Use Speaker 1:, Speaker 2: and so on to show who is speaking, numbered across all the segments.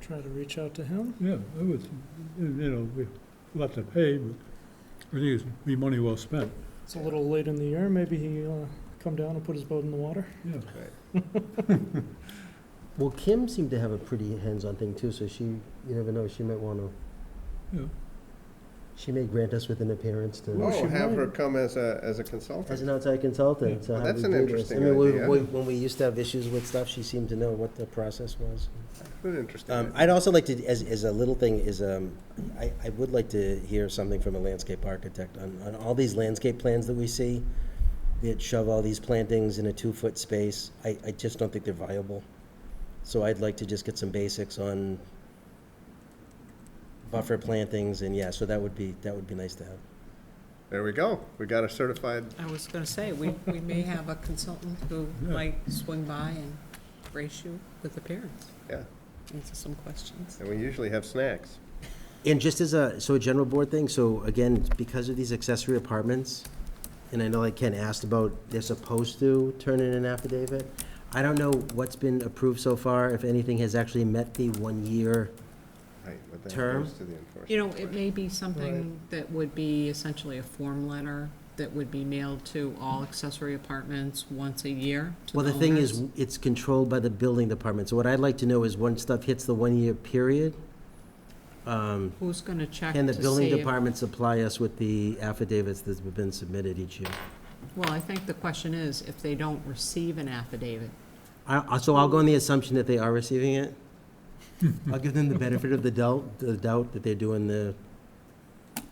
Speaker 1: try to reach out to him.
Speaker 2: Yeah, it was, you know, we we'll have to pay, but I think it'd be money well spent,
Speaker 1: It's a little late in the year, maybe he'll uh, come down and put his boat in the water.
Speaker 2: yeah.
Speaker 3: Well, Kim seemed to have a pretty hands-on thing too, so she, you never know, she might want
Speaker 2: Yeah.
Speaker 3: to. She may grant us with an appearance
Speaker 1: Well,
Speaker 3: to,
Speaker 1: she
Speaker 4: Oh, have her
Speaker 1: might.
Speaker 4: come as a, as a consultant.
Speaker 3: as an outside consultant, so
Speaker 4: Well,
Speaker 3: how we
Speaker 4: that's
Speaker 3: do
Speaker 4: an
Speaker 3: this. I
Speaker 4: interesting
Speaker 3: mean, we-
Speaker 4: idea.
Speaker 3: we- when we used to have issues with stuff, she seemed to know what the process was.
Speaker 4: An interesting.
Speaker 3: Um,
Speaker 4: idea.
Speaker 3: I'd also like to, as, as a little thing, is, um, I, I would like to hear something from a landscape architect on, on all these landscape plans that we see, that shove all these plantings in a two-foot space, I, I just don't think they're viable. So I'd like to just get some basics on buffer plantings, and yeah, so that would be, that would be nice to have.
Speaker 4: There we go. We got a certified,
Speaker 5: I was gonna say, we, we may have a consultant who
Speaker 2: Yeah.
Speaker 5: might swing by and brace you with appearance.
Speaker 4: Yeah.
Speaker 5: Answer some questions.
Speaker 4: and we usually have snacks.
Speaker 3: And just as a, so a general board thing, so again, because of these accessory apartments, and I know like Ken asked about, they're supposed to turn in an affidavit. I don't know what's been approved so far, if anything has actually met the one-year,
Speaker 4: Right, but that
Speaker 3: Term?
Speaker 4: goes to the enforcement.
Speaker 5: You know, it
Speaker 4: question.
Speaker 5: may be something that would be essentially a form letter that would be mailed to all accessory apartments once a year to the
Speaker 3: well, the thing is,
Speaker 5: owners.
Speaker 3: it's controlled by the building department. So what I'd like to know is when stuff hits the one-year period, um,
Speaker 5: Who's gonna check
Speaker 3: can the
Speaker 5: to
Speaker 3: building
Speaker 5: see? if-
Speaker 3: department supply us with the affidavits that have been submitted each year?
Speaker 5: Well, I think the question is, if they don't receive an affidavit,
Speaker 3: I, I- so I'll go on the assumption that they are receiving it. I'll give them the benefit of the doubt, the doubt that they're doing the,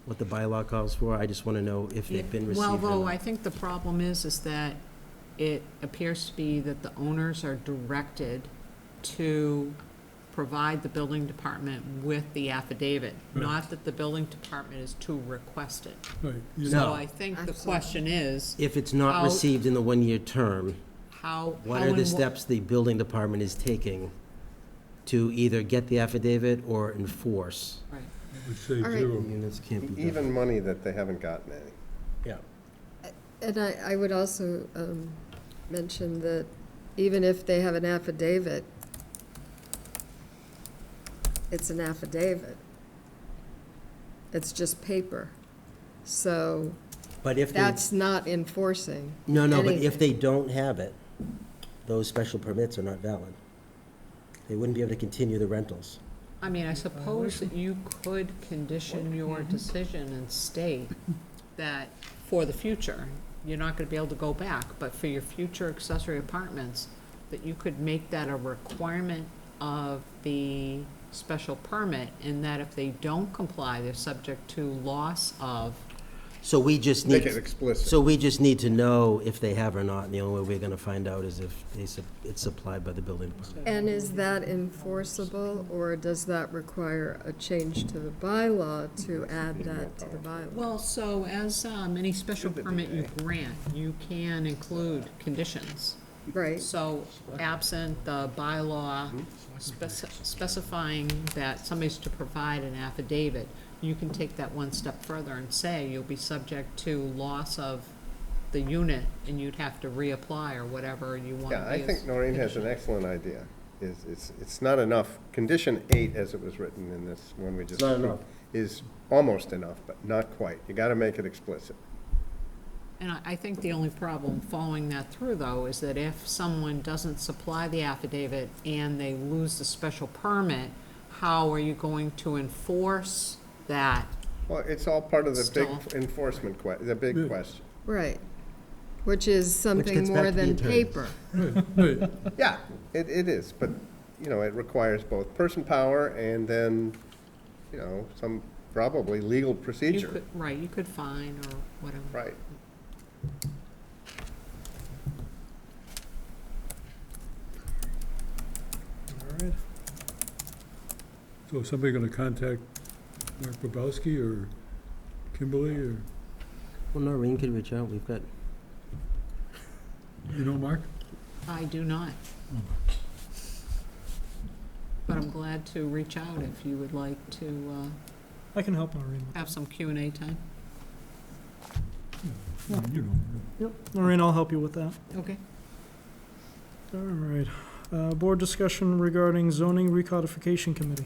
Speaker 3: what the bylaw calls for. I just want to know if they've been received or
Speaker 5: Well, though,
Speaker 3: not.
Speaker 5: I think the problem is, is that it appears to be that the owners are directed to provide the building department with the affidavit,
Speaker 2: Right.
Speaker 5: not that the building department is to request it.
Speaker 2: Right, you know,
Speaker 5: So I think the question is,
Speaker 3: If it's not
Speaker 5: How-
Speaker 3: received in the one-year term,
Speaker 5: how, how
Speaker 3: what are
Speaker 5: and
Speaker 3: the
Speaker 5: wh-
Speaker 3: steps the building department is taking to either get the affidavit or enforce?
Speaker 5: Right.
Speaker 2: it would save
Speaker 6: All right.
Speaker 2: zero.
Speaker 3: Units can't be done.
Speaker 4: E-, Even money that they haven't gotten any.
Speaker 6: And I, I would also um, mention that even if they have an affidavit, it's an affidavit. It's just paper. So
Speaker 3: But if they,
Speaker 6: that's not enforcing.
Speaker 3: no, no, but if
Speaker 6: anything.
Speaker 3: they don't have it, those special permits are not valid. They wouldn't be able to continue the rentals.
Speaker 5: I mean, I suppose that you could condition your decision and state that for the future, you're not gonna be able to go back, but for your future accessory apartments, that you could make that a requirement of the special permit, and that if they don't comply, they're subject to loss of,
Speaker 3: So we just need.
Speaker 4: Make it explicit.
Speaker 3: So we just need to know if they have or not, and the only way we're gonna find out is if they, sup- it's supplied by the building department.
Speaker 6: And is that enforceable, or does that require a change to the bylaw to add that to the bylaw?
Speaker 5: well, so as, um, any special permit you grant, you can include conditions.
Speaker 6: Right,
Speaker 5: So absent the bylaw speci- specifying that somebody's to provide an affidavit, you can take that one step further and say you'll be subject to loss of the unit and you'd have to reapply or whatever you want.
Speaker 4: Yeah, I think Noreen has an excellent idea. Is, it's, it's not enough. Condition eight, as it was written in this one we just.
Speaker 3: not
Speaker 4: approved,
Speaker 3: enough.
Speaker 4: Is almost enough, but not quite. You gotta make it explicit.
Speaker 5: And I, I think the only problem following that through though is that if someone doesn't supply the affidavit and they lose the special permit, how are you going to enforce that?
Speaker 4: Well, it's all part of the big
Speaker 5: Stall.
Speaker 4: enforcement que, the big
Speaker 2: Yeah.
Speaker 4: question.
Speaker 6: right. Which is something
Speaker 3: gets back
Speaker 6: more
Speaker 3: to the
Speaker 6: than
Speaker 3: attorneys.
Speaker 6: paper.
Speaker 2: Right, right,
Speaker 4: Yeah, it, it is, but, you know, it requires both person power and then, you know, some probably legal
Speaker 5: You
Speaker 4: procedure.
Speaker 5: could- Right, you could fine or whatever.
Speaker 4: Right.
Speaker 1: All right.
Speaker 2: so is somebody gonna contact Mark Bobrowski or Kimberly or,
Speaker 3: Well, Noreen could reach out, we've got,
Speaker 2: you know, Mark?
Speaker 5: I do not. But I'm glad to reach out if you would like to
Speaker 1: I can help Noreen.
Speaker 5: uh, have some Q and A time.
Speaker 2: You know,
Speaker 1: Yep, Noreen, I'll help you with that.
Speaker 5: Okay.
Speaker 1: All right. Uh, Board discussion regarding zoning recodification committee.